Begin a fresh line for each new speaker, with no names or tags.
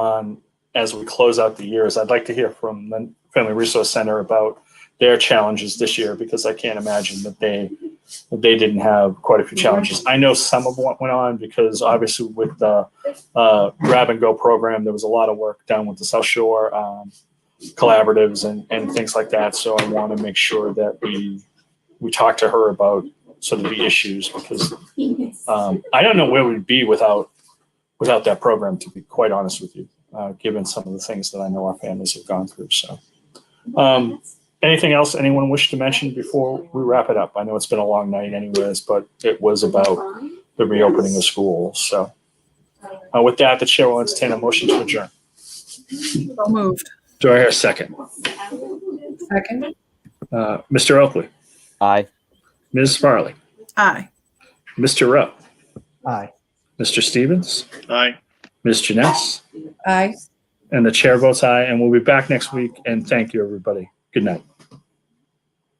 on as we close out the years. I'd like to hear from the Family Resource Center about their challenges this year because I can't imagine that they that they didn't have quite a few challenges. I know some of what went on because obviously with the uh, grab and go program, there was a lot of work done with the South Shore um, collaboratives and, and things like that. So I want to make sure that we we talk to her about sort of the issues because um, I don't know where we'd be without without that program. To be quite honest with you, uh, given some of the things that I know our families have gone through. So, um, anything else anyone wish to mention before we wrap it up? I know it's been a long night, anyways, but it was about the reopening of schools. So, uh, with that, the chair will entertain a motion to adjourn.
Moved.
Do I hear a second?
Second.
Uh, Mr. Oakley,
Aye.
Ms. Farley,
Aye.
Mr. Rowe,
Aye.
Mr. Stevens,
Aye.
Ms. Janess,
Aye.
and the chair votes aye. And we'll be back next week. And thank you, everybody. Good night.